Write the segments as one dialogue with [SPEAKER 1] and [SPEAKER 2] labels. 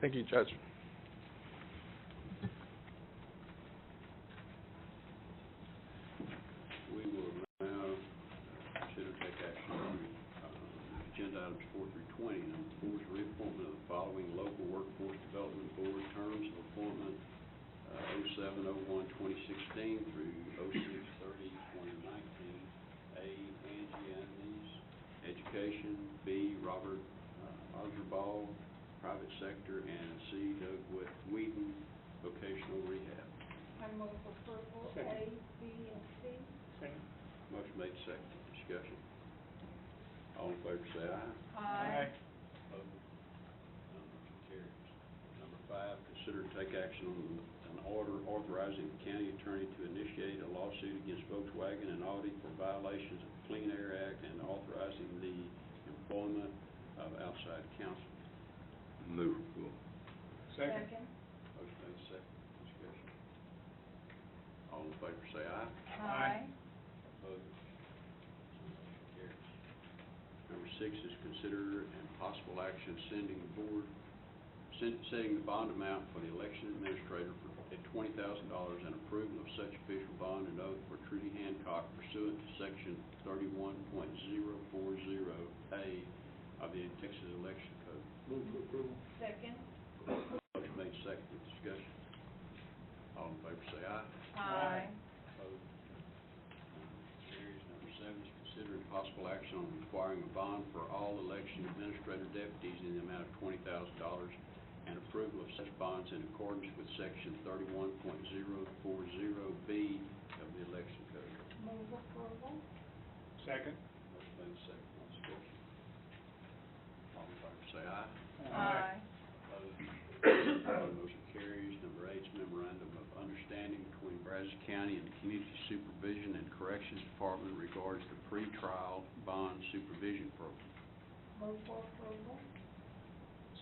[SPEAKER 1] Thank you, Judge.
[SPEAKER 2] We will now consider take action on uh, agenda items four through twenty. Number four is reappointment of the following local workforce development board terms of appointment, uh, oh seven, oh one, twenty sixteen through oh six, thirty, twenty nineteen. A, Angie Andes, Education, B, Robert uh, Archibald, Private Sector, and C, Doug Wh- Whedon, Vocational Rehab.
[SPEAKER 3] I move approval A, B, and C.
[SPEAKER 2] Motion made second, discussion. All in favor say aye.
[SPEAKER 3] Aye.
[SPEAKER 2] Opposed? None motion carries. Number five, consider to take action on an order authorizing the county attorney to initiate a lawsuit against Volkswagen and Audi for violations of Clean Air Act and authorizing the employment of outside counsel.
[SPEAKER 4] Move approval.
[SPEAKER 3] Second.
[SPEAKER 2] Motion made second, discussion. All in favor say aye.
[SPEAKER 3] Aye.
[SPEAKER 2] Opposed? Motion carries. Number six is consider and possible action sending the board, sen- setting the bond amount for the election administrator for, at twenty thousand dollars and approval of such official bond and oath for Trudy Hancock pursuant to section thirty-one point zero four zero A of the Texas Election Code.
[SPEAKER 3] Second.
[SPEAKER 2] Motion made second, discussion. All in favor say aye.
[SPEAKER 3] Aye.
[SPEAKER 2] Opposed? Carries. Number seven is considering possible action on requiring a bond for all election administrator deputies in the amount of twenty thousand dollars and approval of such bonds in accordance with section thirty-one point zero four zero B of the election code.
[SPEAKER 3] Move approval.
[SPEAKER 5] Second.
[SPEAKER 2] Motion made second, on discussion. All in favor say aye. Opposed? Motion carries. Number eight is memorandum of understanding between Brazos County and the Community Supervision and Corrections Department regards the pretrial bond supervision program.
[SPEAKER 3] Move for approval.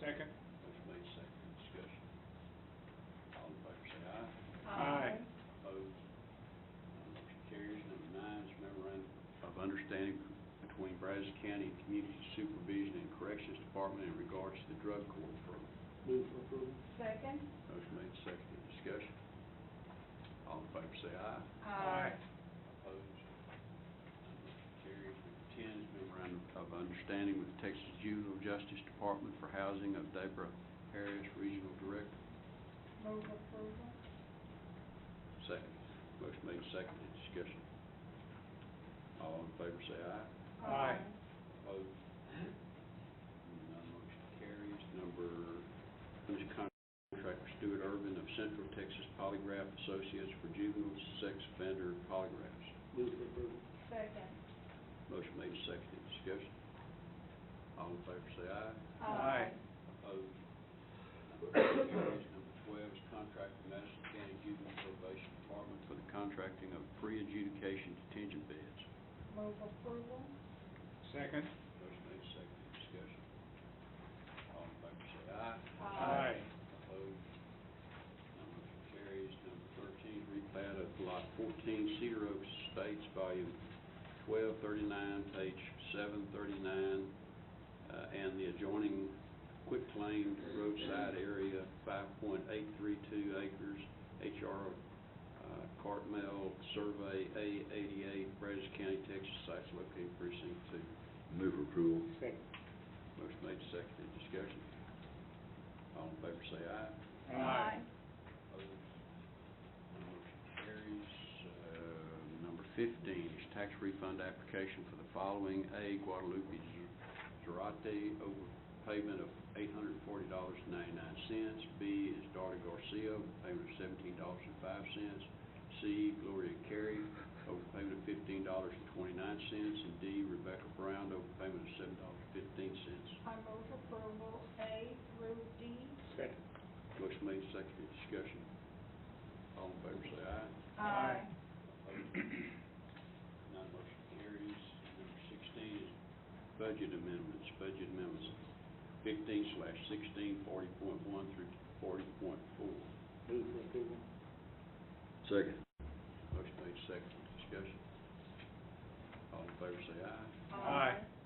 [SPEAKER 5] Second.
[SPEAKER 2] Motion made second, discussion. All in favor say aye.
[SPEAKER 5] Aye.
[SPEAKER 2] Opposed? None Motion carries. Number nine is memorandum of understanding between Brazos County and Community Supervision and Corrections Department in regards to the drug court program.
[SPEAKER 3] Second.
[SPEAKER 2] Motion made second, discussion. All in favor say aye.
[SPEAKER 3] Aye.
[SPEAKER 2] Opposed? Motion Carries. Number ten is memorandum of understanding with the Texas Juvenile Justice Department for housing of Deborah Harris, Regional Director.
[SPEAKER 3] Move approval.
[SPEAKER 2] Second. Motion made second, discussion. All in favor say aye.
[SPEAKER 5] Aye.
[SPEAKER 2] Opposed? None motion carries. Number, under contract for Stuart Urban of Central Texas Polygraph Associates for Juvenile Sex Offender Polygraphs.
[SPEAKER 3] Second.
[SPEAKER 2] Motion made and seconded, discussion. All in favor say aye.
[SPEAKER 5] Aye.
[SPEAKER 2] Opposed? Motion carries. Number twelve is contract with Madison County Juvenile Probation Department for the contracting of pre-adjudication detention beds.
[SPEAKER 3] Move approval.
[SPEAKER 5] Second.
[SPEAKER 2] Motion made and seconded, discussion. All in favor say aye.
[SPEAKER 3] Aye.
[SPEAKER 2] Opposed? None motion carries. Number thirteen, replat of lot fourteen, Cedar Oak Estates, volume twelve thirty-nine, page seven thirty-nine, uh, and the adjoining quitclaim roadside area, five point eight three two acres, HR uh, Cartmel Survey A eighty-eight, Brazos County, Texas, sites located precinct two.
[SPEAKER 4] Move approval.
[SPEAKER 5] Second.
[SPEAKER 2] Motion made, seconded, discussion. All in favor say aye. Opposed? Motion carries. Uh, Number fifteen is tax refund application for the following. A, Guadalupe Zarate, overpayment of eight hundred and forty dollars and ninety-nine cents. B is Darty Garcia, overpayment of seventeen dollars and five cents. C, Gloria Carey, overpayment of fifteen dollars and twenty-nine cents. And D, Rebecca Brown, overpayment of seven dollars and fifteen cents.
[SPEAKER 3] I move approval A through D.
[SPEAKER 5] Second.
[SPEAKER 2] Motion made, seconded, discussion. All in favor, say aye.
[SPEAKER 5] Aye.
[SPEAKER 2] None motion carries. Number sixteen is budget amendments, budget amendments fifteen slash sixteen, forty point one through forty point four.
[SPEAKER 5] Move for approval.
[SPEAKER 4] Second.
[SPEAKER 2] Motion made second, discussion. All in favor say aye.
[SPEAKER 5] Aye.